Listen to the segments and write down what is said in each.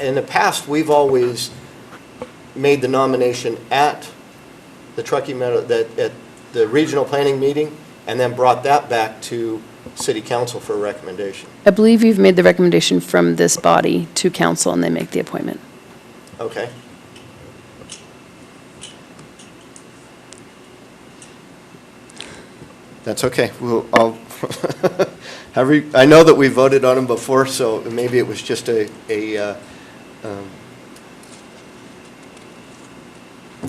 in the past, we've always made the nomination at the Truckee Meadow, that, at the regional planning meeting, and then brought that back to city council for a recommendation. I believe you've made the recommendation from this body to council, and they make the appointment. Okay? That's okay. We'll, I'll, however, you- I know that we voted on them before, so maybe it was just a, a, uh, um,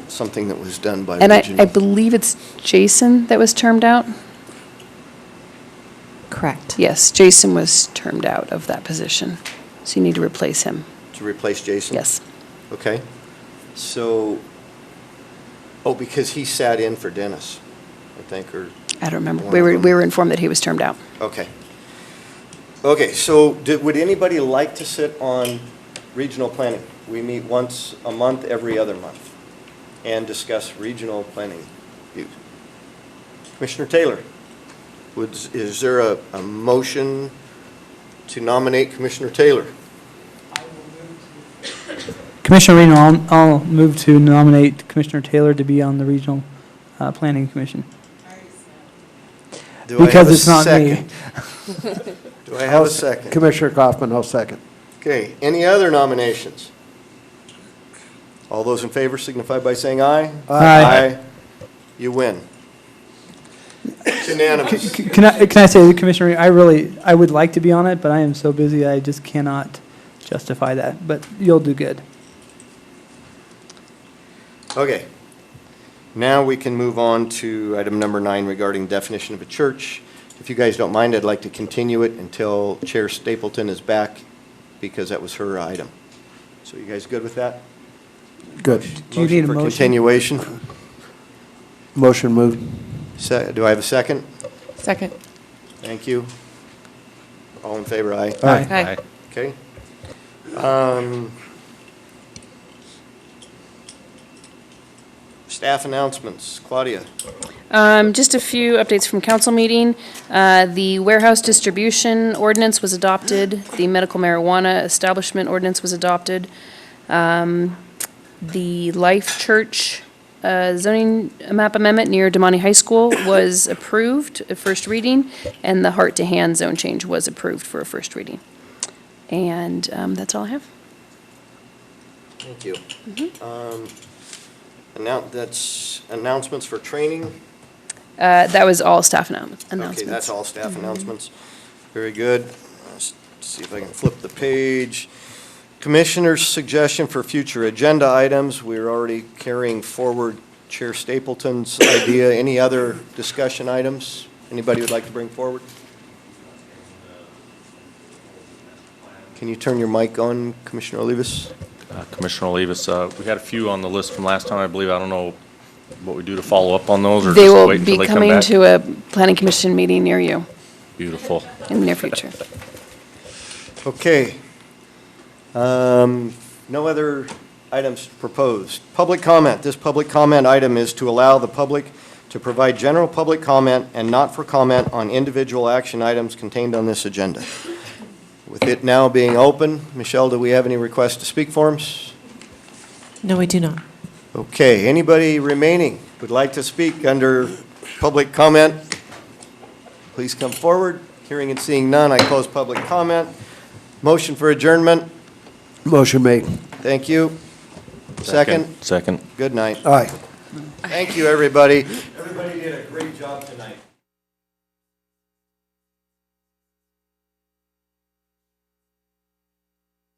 something that was done by And I, I regional. believe it's Jason that was termed out? Correct. Yes, Jason was termed out of that position, so you need to replace him. To replace Jason? Yes. Okay. So, oh, because he sat in for Dennis, I think, or, I don't remember. We were, we were informed that he was termed out. okay. Okay, so did, would anybody like to sit on regional planning? We meet once a month, every other month, and discuss regional planning. views. Commissioner Taylor, would, is there a, a motion to nominate Commissioner Taylor? Commissioner Reno, I'll, I'll move to nominate Commissioner Taylor to be on the Regional uh, Planning Commission. Do I have Because a it's not me. second? Do I have a second? Commissioner Kaufman, I'll second. Okay, any other nominations? All those in favor signify by saying aye. Aye. You win. It's Unanimous. C- Can I, can I say, Commissioner, Reno, I really, I would like to be on it, but I am so busy, I just cannot justify that, but you'll do good. Okay. Now we can move on to item number nine regarding definition of a church. If you guys don't mind, I'd like to continue it until Chair Stapleton is back because that was her item. So you guys good with that? Good. Do you need a For motion? continuation. Motion moved. Se- Do I have a second? Second. Thank you. All in favor, aye? Aye. Aye. Okay. Um, Staff announcements, Claudia. Um, Just a few updates from council meeting. Uh, The warehouse distribution ordinance was adopted. The medical marijuana establishment ordinance was adopted. Um, The Life Church uh, zoning map amendment near Demonte High School was approved at first reading, and the Heart to Hand zone change was approved for a first reading. And um, that's all I have. Thank you. Um, annou- That's announcements for training. Uh, That was all staff annou- announcements. Okay, that's all staff announcements. Very good. Let's see if I can flip the page. Commissioner's suggestion for future agenda items, we're already carrying forward Chair Stapleton's idea. Any other discussion items anybody would like to bring forward? Can you turn your mic on, Commissioner Olivas? Uh, Commissioner Olivas, uh, we had a few on the list from last time, I believe. I don't know what we do to follow up on those, or They just will wait be until they come coming back? to a planning commission meeting near you Beautiful. in the near future. Okay. Um, No other items proposed. Public comment. This public comment item is to allow the public to provide general public comment and not for comment on individual action items contained on this agenda. With it now being open, Michelle, do we have any requests to speak forms? No, we do not. Okay, anybody remaining would like to speak under public comment? Please come forward. Hearing and seeing none, I close public comment. Motion for adjournment. Motion made. Thank you. Second, Second. good night. Aye. Thank you, everybody. Everybody did a great job tonight.